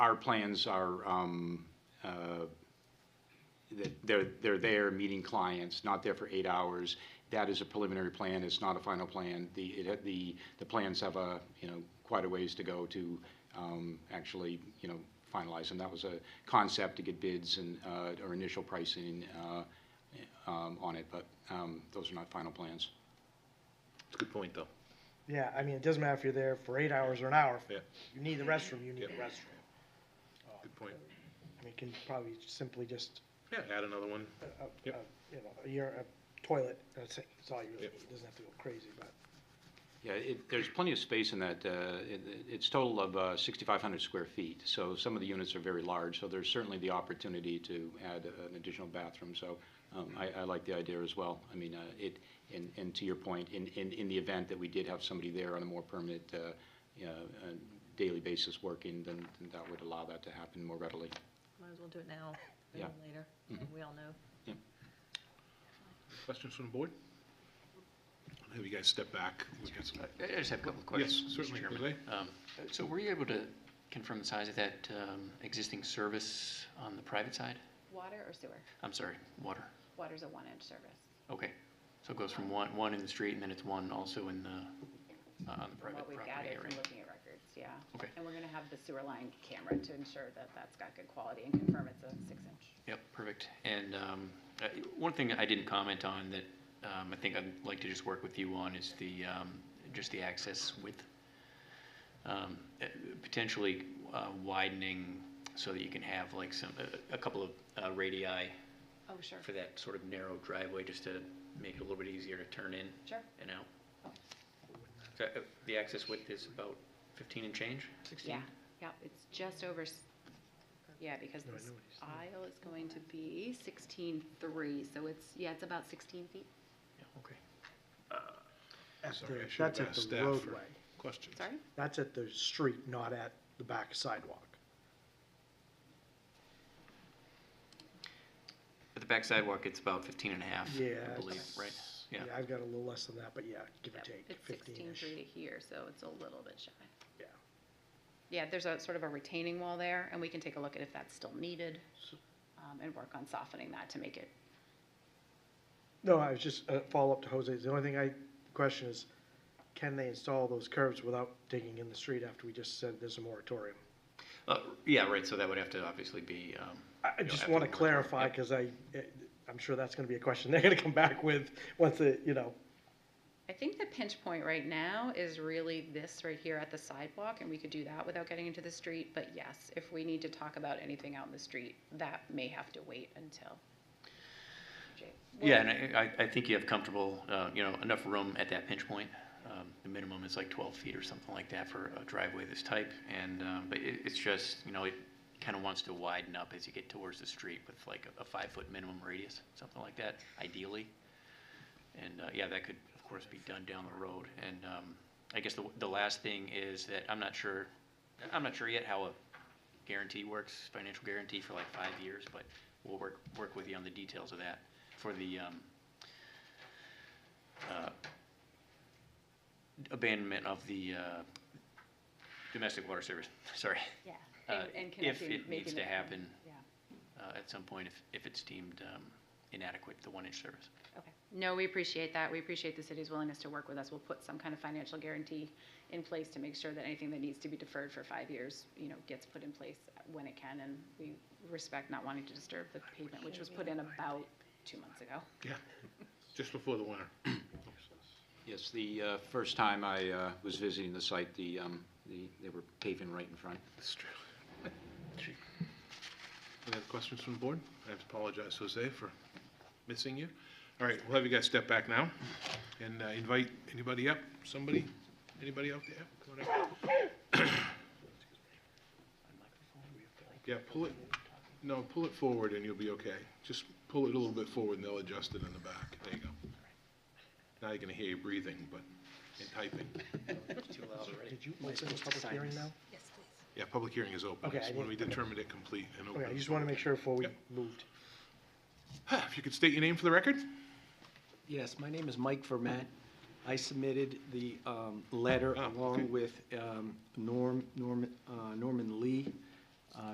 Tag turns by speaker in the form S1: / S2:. S1: our plans are, um, uh, that they're, they're there meeting clients, not there for eight hours. That is a preliminary plan, it's not a final plan. The, it, had- the, the plans have a, you know, quite a ways to go to, um, actually, you know, finalize them. That was a concept to get bids and, uh, or initial pricing, uh, um, on it, but, um, those are not final plans.
S2: It's a good point, though.
S3: Yeah, I mean, it doesn't matter if you're there for eight hours or an hour.
S2: Yeah.
S3: If You need the restroom, you need the
S2: Yeah.
S3: restroom.
S2: Good point.
S3: I mean, you can probably simply just,
S2: Yeah, add another one.
S3: a- a-
S2: Yep.
S3: a- you know, a year, a toilet, that's it, that's all you really
S2: Yep.
S3: need, It doesn't have to go crazy, but.
S1: Yeah, it, there's plenty of space in that, uh, it, it's total of, uh, sixty-five hundred square feet, so some of the units are very large, so there's certainly the opportunity to add uh, an additional bathroom, so, um, I, I like the idea as well. I mean, uh, it, and, and to your point, in, in, in the event that we did have somebody there on a more permanent, uh, you know, uh, daily basis working, then, then that would allow that to happen more readily.
S4: Might as well do it now,
S1: Yeah.
S4: rather than later, we all know.
S2: Questions from the board? I'll Have you guys step back? We've got some-
S5: I I just have a couple of
S2: Yes,
S5: questions.
S2: certainly,
S5: Mr. Chairman.
S2: Jose.
S5: Um, So were you able to confirm the size of that um, existing service on the private side?
S6: Water or sewer?
S5: I'm sorry, water.
S6: Water's a one-inch service,
S5: Okay. So it goes from one, one in the street and then it's one also in the, uh, on the
S6: from
S5: private
S6: what we've
S5: property
S6: gathered from
S5: area?
S6: looking at records, yeah.
S5: Okay.
S6: And we're gonna have the sewer line camera to ensure that that's got good quality and confirm it's a six-inch.
S5: Yep, perfect. And um, uh, one thing I didn't comment on that um, I think I'd like to just work with you on is the, um, just the access width. Um, uh, Potentially uh, widening so that you can have like some, a- a couple of uh, radii
S6: Oh, sure,
S5: for that sort of narrow driveway, just to make it a little bit easier to turn in
S6: sure.
S5: and out. So, uh, The access width is about 15 and change?
S6: Yeah, yeah, it's just over, s- yeah, because this aisle is going to be sixteen-three, so it's, yeah, it's about sixteen feet,
S5: Yeah, okay.
S3: Uh, at
S2: Sorry, I
S3: the-
S2: should have
S3: That's at
S2: asked
S3: the
S2: staff for-
S3: roadway.
S2: Questions?
S6: sorry?
S3: That's at the street, not at the back sidewalk.
S5: At the back sidewalk, it's about 15 and a half,
S3: Yeah,
S5: I believe,
S3: it's-
S5: right? Yeah,
S3: I've got a little less than that, but yeah, give or
S6: Yep,
S3: take,
S6: It's
S3: fifteen-ish.
S6: sixteen-three to here, so it's a little bit shy.
S3: Yeah.
S6: Yeah, there's a sort of a retaining wall there, and we can take a look at if that's still needed, um, and work on softening that to make it
S3: No, I was just, uh, follow up to Jose's, the only thing I question is, can they install those curbs without digging in the street after we just said there's a moratorium?
S5: Uh, yeah, right, so that would have to obviously be, um,
S3: I- I
S5: You'll
S3: just
S5: have to
S3: want to
S5: work on it,
S3: clarify,
S5: yep.
S3: because I, it- I'm sure that's going to be a question they're going to come back with, once the, you know,
S6: I think the pinch point right now is really this right here at the sidewalk, and we could do that without getting into the street, but yes, if we need to talk about anything out in the street, that may have to wait until.
S5: yeah, and I, I I think you have comfortable, uh, you know, enough room at that pinch point. Um, The minimum is like 12 feet or something like that for a driveway this type, and, um, but it, it's just, you know, it kind of wants to widen up as you get towards the street with like a- a five-foot minimum radius, something like that, ideally. And, uh, yeah, that could, of course, be done down the road. And, um, I guess the, the last thing is that I'm not sure, I'm not sure yet how a guarantee works, financial guarantee for like five years, but we'll work, work with you on the details of that for the, um, uh, abandonment of the, uh, domestic water service, sorry.
S6: Yeah.
S5: Uh,
S6: and-
S5: If
S6: and
S5: it
S6: connecting-
S5: needs
S6: making
S5: to
S6: it-
S5: happen,
S6: Yeah,
S5: uh, at some point, if, if it's deemed, um, inadequate, the one-inch service.
S6: okay. No, we appreciate that. We appreciate the city's willingness to work with us. We'll put some kind of financial guarantee in place to make sure that anything that needs to be deferred for five years, you know, gets put in place when it can, and we respect not wanting to disturb the pavement, which was put in about two months ago.
S2: Yeah, just before the winter.
S1: Yes, the uh, first time I uh, was visiting the site, the, um, the- they were paving right in front.
S2: That's true. Any other questions from the board? I apologize, Jose, for missing you. All right, we'll have you guys step back now and uh, invite anybody up, somebody, anybody out there? Come on up. Yeah, pull it, no, pull it forward and you'll be okay. Just pull it a little bit forward and they'll adjust it in the back. There you go. Now you can hear you breathing, but, and typing.
S5: Too loud already.
S3: did you open the public hearing now?
S2: Yeah, public hearing is open.
S3: Okay,
S2: It's
S3: I
S2: When we
S3: didn't-
S2: determined it complete and open.
S3: Okay, Oh, I just want to make sure before we
S2: Yep.
S3: moved.
S2: If you could state your name for the record?
S7: Yes, my name is Mike Vermette. I submitted the um, letter
S2: Ah, okay.
S7: along with um, Norm, Norm- uh, Norman Lee